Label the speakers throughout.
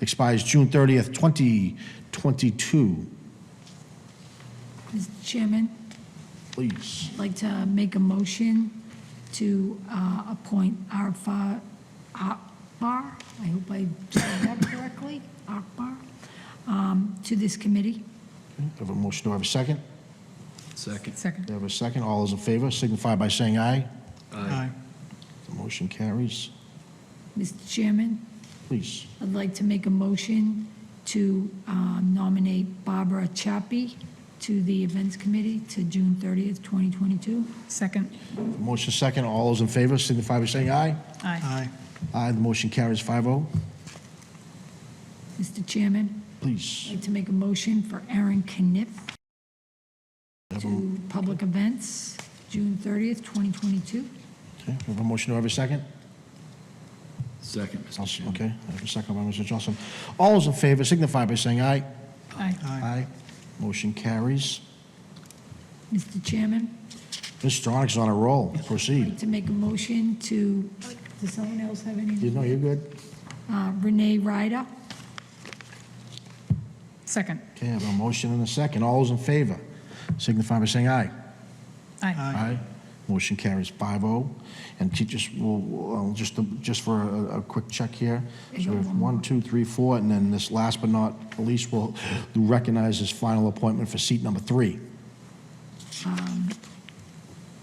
Speaker 1: expires June 30th, 2022.
Speaker 2: Mr. Chairman,
Speaker 1: Please.
Speaker 2: I'd like to make a motion to uh, appoint Arfa Akbar, I hope I said that correctly, Akbar, um, to this committee.
Speaker 1: Have a motion, do I have a second?
Speaker 3: Second.
Speaker 4: Second.
Speaker 1: Do I have a second? All those in favor signify by saying aye.
Speaker 3: Aye.
Speaker 1: The motion carries.
Speaker 2: Mr. Chairman,
Speaker 1: Please.
Speaker 2: I'd like to make a motion to uh, nominate Barbara Chappie to the Events Committee to June 30th, 2022.
Speaker 4: Second.
Speaker 1: Motion second, all those in favor signify by saying aye.
Speaker 4: Aye.
Speaker 3: Aye.
Speaker 1: Aye, the motion carries oh. 5-0.
Speaker 2: Mr. Chairman, I'd
Speaker 1: Please.
Speaker 2: like to make a motion for Aaron Kniff to Public Events, June 30th, 2022.
Speaker 1: Okay, we have a motion, do I have a second?
Speaker 3: Second, Mr.
Speaker 1: Also-
Speaker 3: Chairman.
Speaker 1: Okay, I have a second by Mr. Johnson. All those in favor signify by saying aye.
Speaker 4: Aye.
Speaker 1: Aye. Motion carries.
Speaker 2: Mr. Chairman,
Speaker 1: Ms. Stronach's on a roll.
Speaker 2: I'd
Speaker 1: Proceed.
Speaker 2: like to make a motion to, does someone else have
Speaker 1: You
Speaker 2: any?
Speaker 1: know, you're good.
Speaker 2: Uh, Renee Ryder.
Speaker 4: Second.
Speaker 1: Okay, I have a motion and a second. All those in favor signify by saying aye.
Speaker 4: Aye.
Speaker 1: Aye. Motion carries 5-0. And teachers, will- will, uh, just, just for a, a quick check here. So we have one, two, three, four, and then this last but not least, we'll recognize his final appointment for seat number three.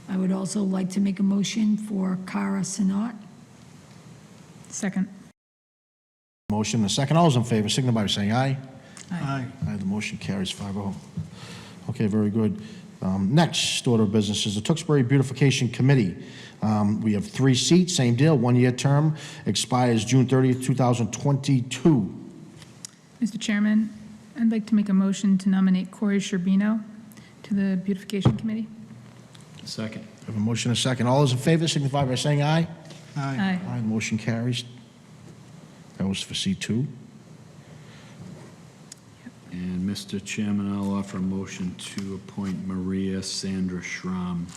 Speaker 2: I would also like to make a motion for Cara Sinat.
Speaker 4: Second.
Speaker 1: Motion and a second. All those in favor signify by saying aye.
Speaker 3: Aye.
Speaker 1: Aye, the motion carries 5-0. Okay, very good. Um, Next order of business is the Tewksbury Beautification Committee. Um, We have three seats, same deal, one-year term, expires June 30th, 2022.
Speaker 4: Mr. Chairman, I'd like to make a motion to nominate Corey Sherbino to the Beautification Committee.
Speaker 3: Second.
Speaker 1: I Have a motion and a second. All those in favor signify by saying aye.
Speaker 4: Aye.
Speaker 1: Aye, the motion carries. That was for C2.
Speaker 3: And Mr. Chairman, I'll offer a motion to appoint Maria Sandra Schramm.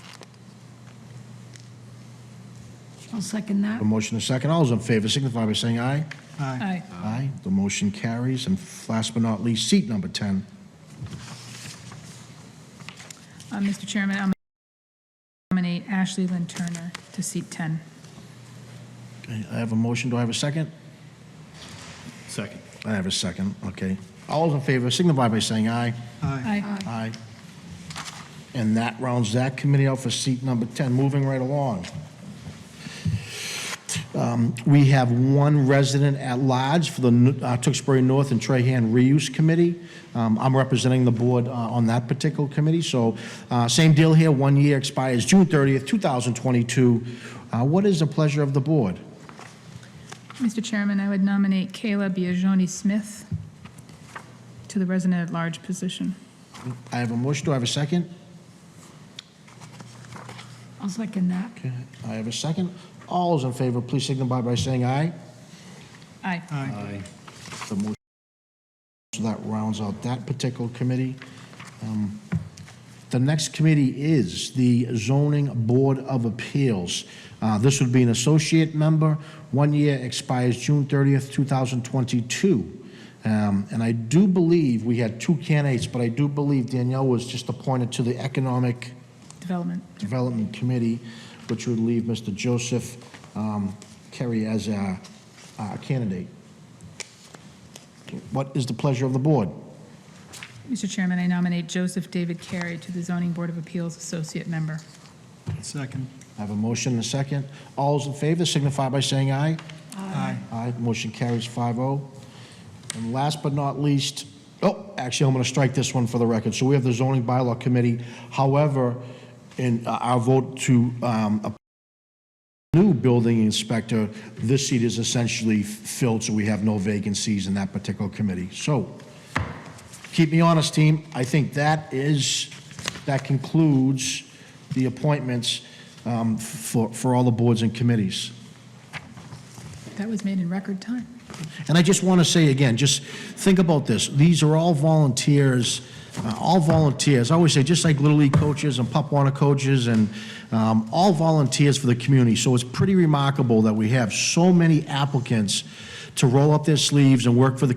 Speaker 2: I'll second that.
Speaker 1: A motion and a second. All those in favor signify by saying aye.
Speaker 4: Aye.
Speaker 1: Aye, the motion carries. And last but not least, seat number 10.
Speaker 4: Uh, Mr. Chairman, I'll nominate Ashley Lynn Turner to seat 10.
Speaker 1: Okay, I have a motion. Do I have a second?
Speaker 3: Second.
Speaker 1: I have a second, okay. All those in favor signify by saying aye.
Speaker 4: Aye.
Speaker 1: Aye. And that rounds that committee out for seat number 10. Moving right along. Um, We have one resident at large for the N- uh, Tewksbury North and Trahan Reuse Committee. Um, I'm representing the board uh, on that particular committee, so uh, same deal here, one year expires June 30th, 2022. Uh, What is the pleasure of the board?
Speaker 4: Mr. Chairman, I would nominate Kayla Biagioni Smith to the Resident at Large position.
Speaker 1: I have a motion, do I have a second?
Speaker 2: I'll second that.
Speaker 1: Okay, I have a second. All those in favor, please signify by saying aye.
Speaker 4: Aye.
Speaker 3: Aye.
Speaker 1: The motion, so that rounds out that particular committee. Um, The next committee is the Zoning Board of Appeals. Uh, This would be an associate member, one year expires June 30th, 2022. Um, And I do believe, we had two candidates, but I do believe Danielle was just appointed to the Economic
Speaker 4: Development.
Speaker 1: Development Committee, which would leave Mr. Joseph um, Kerry as our our candidate. What is the pleasure of the board?
Speaker 4: Mr. Chairman, I nominate Joseph David Carey to the Zoning Board of Appeals Associate Member.
Speaker 3: Second.
Speaker 1: I have a motion and a second. All those in favor signify by saying aye.
Speaker 3: Aye.
Speaker 1: Aye, motion carries 5-0. And last but not least, oh, actually, I'm going to strike this one for the record. So we have the zoning bylaw committee. However, in uh, our vote to um, appoint a new building inspector, this seat is essentially filled, so we have no vacancies in that particular committee. So, keep me honest, team, I think that is, that concludes the appointments um, for, for all the boards and committees.
Speaker 4: That was made in record time.
Speaker 1: And I just want to say again, just think about this. These are all volunteers, uh, all volunteers. I always say, just like Little League coaches and Pop Warner coaches and um, all volunteers for the community. So it's pretty remarkable that we have so many applicants to roll up their sleeves and work for the